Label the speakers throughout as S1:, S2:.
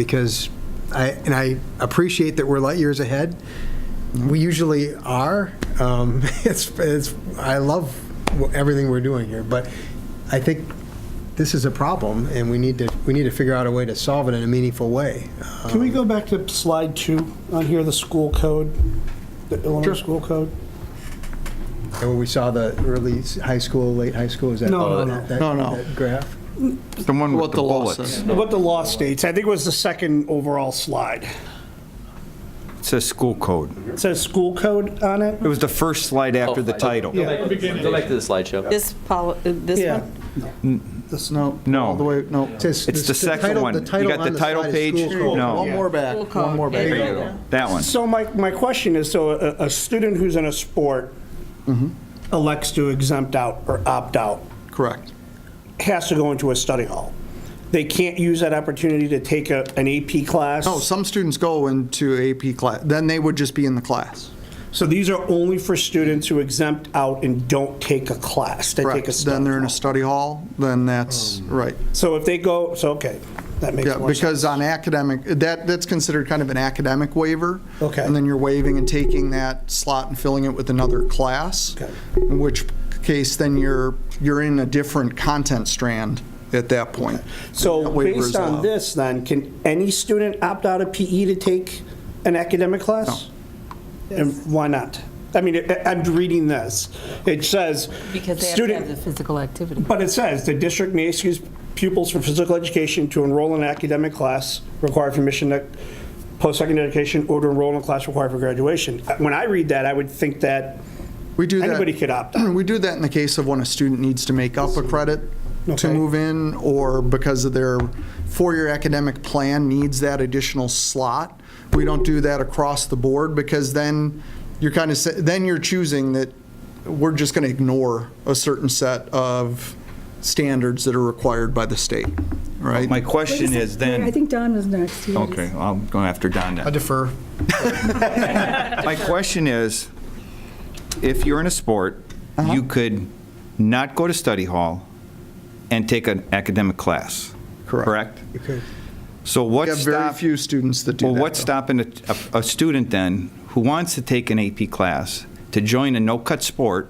S1: because I, and I appreciate that we're light years ahead. We usually are. Um, It's, it's, I love wh- everything we're doing here, but I think this is a problem, and we need to, we need to figure out a way to solve it in a meaningful way. Uh,
S2: Can we go back to slide two on here, the school code, the Illinois
S1: Sure.
S2: school code?
S1: And when we saw the early s- high school, late high school, is that?
S2: No, no, no.
S1: that-
S3: No, no.
S1: that Graph?
S3: The one
S4: What
S3: with the
S4: the law
S3: bullets.
S4: says.
S2: What the law states, I think it was the second overall slide.
S3: It says school code.
S2: It says school code on it?
S3: It was the first slide after the
S4: Oh, I-
S3: title.
S2: Yeah.
S4: Go back to the slideshow.
S5: This poli, uh, this
S2: Yeah.
S5: one?
S3: No.
S6: All the
S3: No,
S6: way, no.
S1: Says-
S3: it's the second
S1: title-
S3: one.
S1: the
S3: You
S1: title
S3: got
S1: on
S3: the title
S1: side is
S3: page?
S1: school code.
S3: No,
S6: One more back,
S5: School
S6: one more
S5: code. There
S6: back.
S5: you go.
S3: that one.
S2: So my, my question is, so a, a student who's in a sport
S6: Mm-hmm.
S2: elects to exempt out or opt out,
S6: Correct.
S2: has to go into a study hall. They can't use that opportunity to take a, an AP class?
S6: No, some students go into AP class, then they would just be in the class.
S2: So these are only for students who exempt out and don't take a class, they take a
S6: Correct.
S2: study
S6: Then they're in
S2: hall.
S6: a study hall, then that's, right.
S2: So if they go, so, okay, that makes
S6: Yeah,
S2: more sense.
S6: because on academic, that, that's considered kind of an academic waiver.
S2: Okay.
S6: And then you're waiving and taking that slot and filling it with another class.
S2: Okay.
S6: In which case, then you're, you're in a different content strand at that point.
S2: So
S6: That waiver is
S2: based on
S6: allowed.
S2: this, then, can any student opt out of PE to take an academic class? And why not? I mean, I- I'm reading this. It says,
S5: Because they have to have the
S2: student,
S5: physical activity.
S2: but it says, the district may excuse pupils from physical education to enroll in an academic class required for mission nec- post-secondary education or to enroll in a class required for graduation. Uh, When I read that, I would think that
S6: We do that.
S2: anybody could opt out.
S6: We do that in the case of when a student needs to make up a credit to
S2: Okay.
S6: move in, or because of their four-year academic plan needs that additional slot. We don't do that across the board, because then you're kind of, then you're choosing that we're just going to ignore a certain set of standards that are required by the state, right?
S3: My question is
S7: I
S3: then,
S7: think Don was next. He was-
S3: okay, I'm going after Don now.
S6: defer.
S3: My question is, if you're in a sport, you could not go to study hall and take an academic class,
S6: Correct.
S3: correct?
S1: You could-
S3: So what
S6: We have very
S3: stop-
S6: few students that do that.
S3: Well, what's
S6: though.
S3: stopping a, a- a student then, who wants to take an AP class, to join a no-cut sport,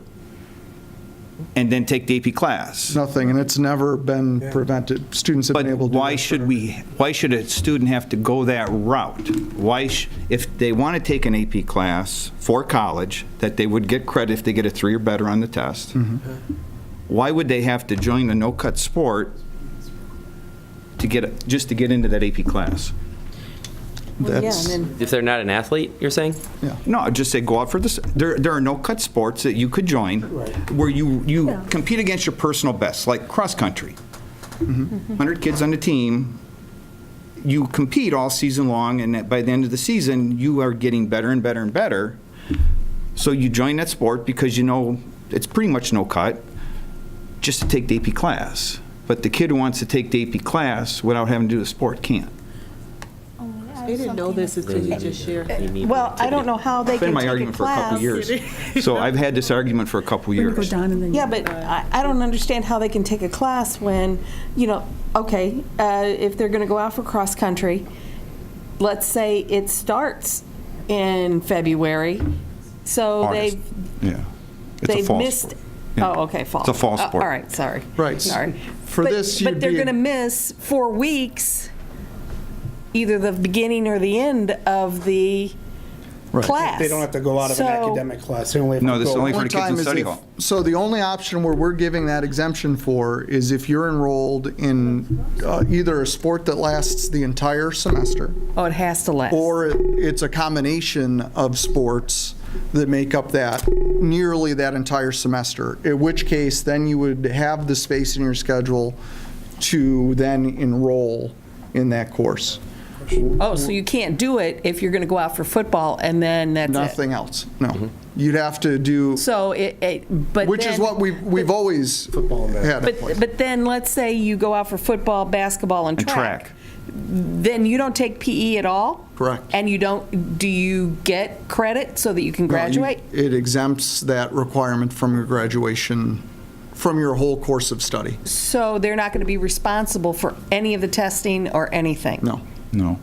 S3: and then take the AP class?
S6: Nothing, and it's never been prevented. Students have
S3: But
S6: been able to. do
S3: why
S6: that
S3: should
S6: forever.
S3: we, why should a student have to go that route? Why, sh- if they want to take an AP class for college, that they would get credit if they get a three or better on the test,
S6: Mm-hmm.
S3: why would they have to join a no-cut sport to get, just to get into that AP class?
S5: Yeah,
S6: That's-
S5: and then
S4: If they're not an athlete, you're saying?
S3: No, I'd just say go out for this. There, there are no cut sports that you could join where you, you compete against your personal best, like cross country. 100 kids on the team, you compete all season long, and at- by the end of the season, you are getting better and better and better. So you join that sport because you know it's pretty much no cut just to take the AP class. But the kid who wants to take the AP class without having to do the sport can't.
S8: They didn't know this until you just shared.
S9: Well, I don't know how they
S3: Been
S9: can
S3: my
S9: take a
S3: argument for a couple
S9: class.
S3: years. So I've had this argument for a couple years.
S7: Go Don and then.
S9: Yeah, but I, I don't understand how they can take a class when, you know, okay, uh, if they're going to go out for cross-country, let's say it starts in February, so
S3: August.
S9: they've,
S3: Yeah. It's a
S9: they've
S3: fall
S9: missed.
S3: sport. Yeah.
S9: Oh, okay, fall.
S3: It's a fall
S9: Uh,
S3: sport.
S9: All right, sorry.
S6: Right.
S9: Sorry.
S6: For
S9: But-
S6: this, you'd
S9: But they're
S6: be-
S9: going to miss four weeks, either the beginning or the end of the class.
S2: They don't have to go out of an
S9: So-
S2: academic class, they only have to go.
S3: No, this is only for
S6: One
S3: the kids
S6: time
S3: in
S6: is
S3: study
S6: if-
S3: hall.
S6: So the only option where we're giving that exemption for is if you're enrolled in uh, either a sport that lasts the entire semester,
S5: Oh, it has to last.
S6: or it- it's a combination of sports that make up that, nearly that entire semester, in which case then you would have the space in your schedule to then enroll in that course.
S5: Oh, so you can't do it if you're going to go out for football and then that's it.
S6: Nothing else, no. You'd have to do,
S5: So it, it, but
S6: which is
S5: then-
S6: what we've, we've always had. it for.
S5: But, but then, let's say you go out for football, basketball, and
S3: And
S5: track.
S3: track.
S5: Then you don't take PE at all?
S6: Correct.
S5: And you don't, do you get credit so that you can
S6: No, you-
S5: graduate?
S6: It exempts that requirement from your graduation, from your whole course of study.
S5: So they're not going to be responsible for any of the testing or anything?
S6: No.
S3: No.